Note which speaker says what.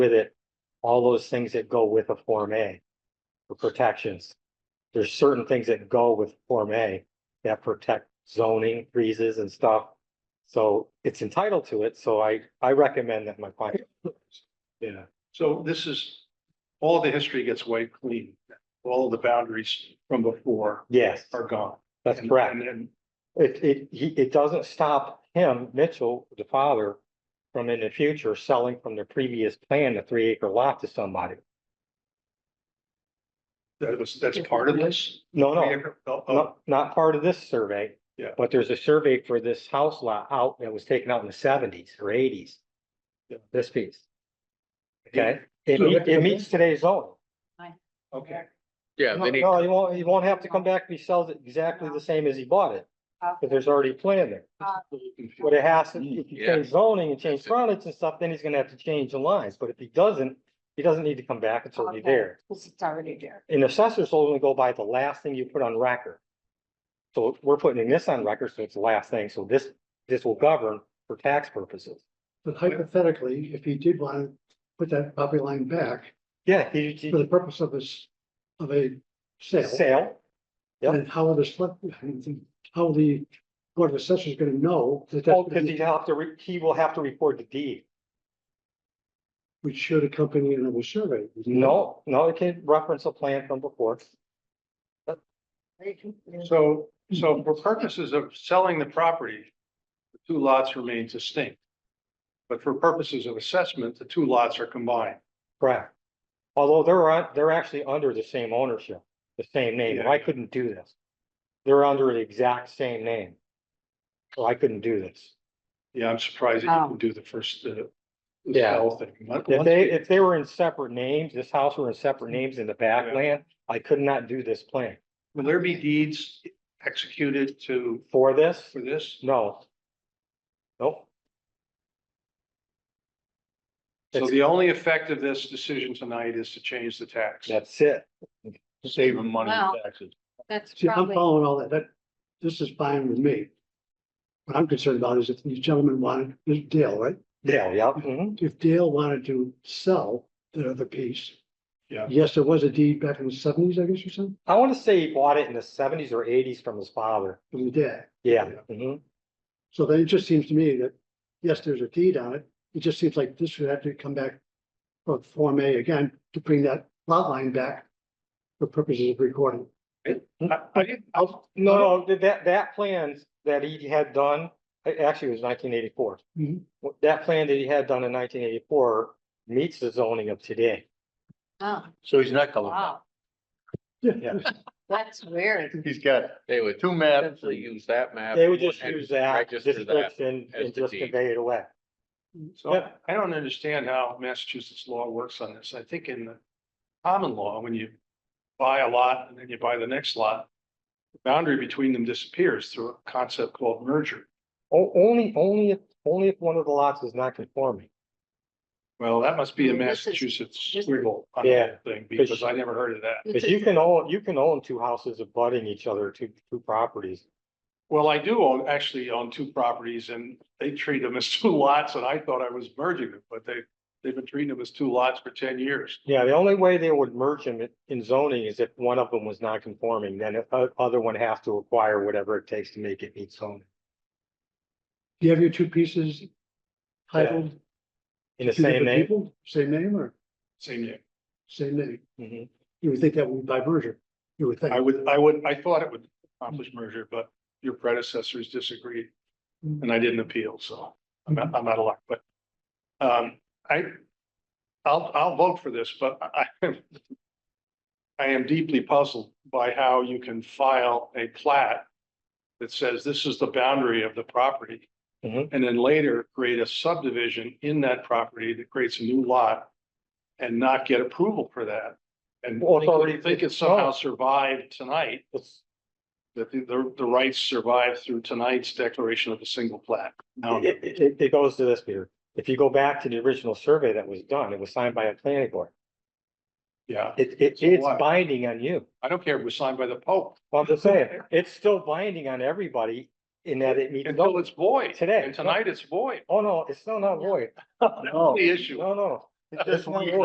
Speaker 1: with it, all those things that go with a Form A. For protections. There's certain things that go with Form A that protect zoning, freezes and stuff. So it's entitled to it, so I, I recommend that my client. Yeah,
Speaker 2: So this is, all the history gets wiped clean. All the boundaries from before
Speaker 1: yes,
Speaker 2: are gone.
Speaker 1: that's
Speaker 2: And-
Speaker 1: correct.
Speaker 2: And then
Speaker 1: It, it, he, it doesn't stop him, Mitchell, the father, from in the future selling from the previous plan, the three acre lot to somebody.
Speaker 2: that was, that's part of this?
Speaker 1: No, no,
Speaker 2: Oh, oh,
Speaker 1: not, not part of this survey.
Speaker 2: Yeah.
Speaker 1: But there's a survey for this house lot out that was taken out in the seventies or eighties.
Speaker 2: Yeah.
Speaker 1: This piece. Okay, it
Speaker 2: So
Speaker 1: meets,
Speaker 2: that-
Speaker 1: it meets today's zone.
Speaker 2: Okay,
Speaker 3: Yeah,
Speaker 1: No,
Speaker 3: they need,
Speaker 1: no, you won't, you won't have to come back if he sells it exactly the same as he bought it,
Speaker 3: Oh.
Speaker 1: because there's already a plan there. But it has, to if you
Speaker 3: Yeah.
Speaker 1: change zoning and change
Speaker 3: That's it.
Speaker 1: frontage and stuff, then he's gonna have to change the lines, but if he doesn't, he doesn't need to come back, it's already
Speaker 4: Okay.
Speaker 1: there.
Speaker 4: Because it's already there.
Speaker 1: And assessors only go by the last thing you put on record. So we're putting this on record, so it's the last thing, so this, this will govern for tax purposes.
Speaker 5: But hypothetically, if he did want to put that property line back
Speaker 1: Yeah, he, he-
Speaker 5: for the purpose of this, of a sale,
Speaker 1: sale, yeah.
Speaker 5: then how will this, flip- how will the board of assessors gonna know that
Speaker 1: Oh, because he'd
Speaker 5: that
Speaker 1: have to, re- he will have to record the deed.
Speaker 5: which should accompany another survey?
Speaker 1: Mm-hmm. No, no, it can reference a plan from before.
Speaker 2: so, so for purposes of selling the property, the two lots remain distinct. But for purposes of assessment, the two lots are combined.
Speaker 1: Correct. Although they're, on- they're actually under the same ownership, the same name, and I
Speaker 2: Yeah.
Speaker 1: couldn't do this. They're under the exact same name. So I couldn't do this.
Speaker 2: Yeah, I'm surprised that you can do the first, uh, the
Speaker 1: Yeah.
Speaker 2: sell thing. Once-
Speaker 1: If they, if they were in separate names, this house were in separate names in the
Speaker 2: Yeah.
Speaker 1: backland, I could not do this plan.
Speaker 2: Will there be deeds executed to,
Speaker 1: For this,
Speaker 2: for this?
Speaker 1: no. Nope,
Speaker 2: So the only effect of this decision tonight is to change the tax.
Speaker 1: that's it.
Speaker 2: Save them money
Speaker 4: Well-
Speaker 2: in taxes.
Speaker 4: That's
Speaker 5: See, I'm
Speaker 4: probably,
Speaker 5: following all that, that, this is fine with me. What I'm concerned about is if these gentlemen wanted, this is Dale, right?
Speaker 1: Yeah, yeah, mhm.
Speaker 5: If Dale wanted to sell the other piece.
Speaker 2: Yeah.
Speaker 5: Yes, there was a deed back in the seventies, I guess, or something,
Speaker 1: I wanna say he bought it in the seventies or eighties from his father.
Speaker 5: from the dad.
Speaker 1: Yeah,
Speaker 2: Yeah.
Speaker 1: mhm.
Speaker 5: So then it just seems to me that, yes, there's a deed on it, it just seems like this would have to come back. For Form A again, to bring that lot line back. For purposes of recording.
Speaker 2: I- I- I'll-
Speaker 1: No, no, th- that, that plans that he had done, a- actually it was nineteen eighty-four.
Speaker 5: Mhm.
Speaker 1: That plan that he had done in nineteen eighty-four meets the zoning of today.
Speaker 4: oh,
Speaker 6: So he's not coming back.
Speaker 4: wow, that's weird.
Speaker 6: He's got
Speaker 3: they would
Speaker 6: two maps.
Speaker 3: simply use that map.
Speaker 1: They would just
Speaker 3: and
Speaker 1: use that
Speaker 3: Register that.
Speaker 1: description
Speaker 3: as
Speaker 1: and
Speaker 3: the
Speaker 1: just
Speaker 3: deed.
Speaker 1: convey it away.
Speaker 2: So I- I don't understand how Massachusetts law works on this. I think in the common law, when you buy a lot and then you buy the next lot, the boundary between them disappears through a concept called merger.
Speaker 1: O- only, only, if only if one of the lots is not conforming.
Speaker 2: Well, that must be a
Speaker 4: Well, this is-
Speaker 2: Massachusetts
Speaker 4: this-
Speaker 2: squiggle on
Speaker 1: Yeah.
Speaker 2: the thing because I never heard of that.
Speaker 1: Cause you can own, you can own two houses abutting each other, two, two properties.
Speaker 2: Well, I do own, actually own two properties and they treat them as two lots and I thought I was merging them, but they, they've been treating them as two lots for ten years.
Speaker 1: Yeah, the only way they would merge them in- in zoning is if one of them was not conforming, then the o- other one has to acquire whatever it takes to make it meet zoning.
Speaker 5: Do you have your two pieces? Titled?
Speaker 1: In the
Speaker 5: two
Speaker 1: same
Speaker 5: different
Speaker 1: name.
Speaker 5: people? Same name or
Speaker 2: Same year.
Speaker 5: same name?
Speaker 1: Mhm.
Speaker 5: You would think that would be by merger, you would think.
Speaker 2: I would, I would, I thought it would accomplish merger, but your predecessors disagreed and I didn't appeal, so I'm, out- I'm out of luck, but um, I, I'll, I'll vote for this, but I, I am I am deeply puzzled by how you can file a plat that says this is the boundary of the property.
Speaker 1: Mhm.
Speaker 2: And then later create a subdivision in that property that creates a new lot and not get approval for that. And
Speaker 1: Well, it's already-
Speaker 2: think- think it somehow survived tonight,
Speaker 1: It's-
Speaker 2: that the- the, the rights survived through tonight's declaration of a single plat. Now,
Speaker 1: It, it- it, it goes to this, Peter. If you go back to the original survey that was done, it was signed by a planning board.
Speaker 2: Yeah,
Speaker 1: It, it,
Speaker 2: So
Speaker 1: it's
Speaker 2: what?
Speaker 1: binding on you.
Speaker 2: I don't care if it was signed by the Pope
Speaker 1: Well, I'm just saying, it's still binding on everybody in that it meets.
Speaker 2: until it's void.
Speaker 1: Today.
Speaker 2: And tonight it's void.
Speaker 1: Oh, no, it's still not void.
Speaker 2: That's the issue.
Speaker 1: No, no, It just won't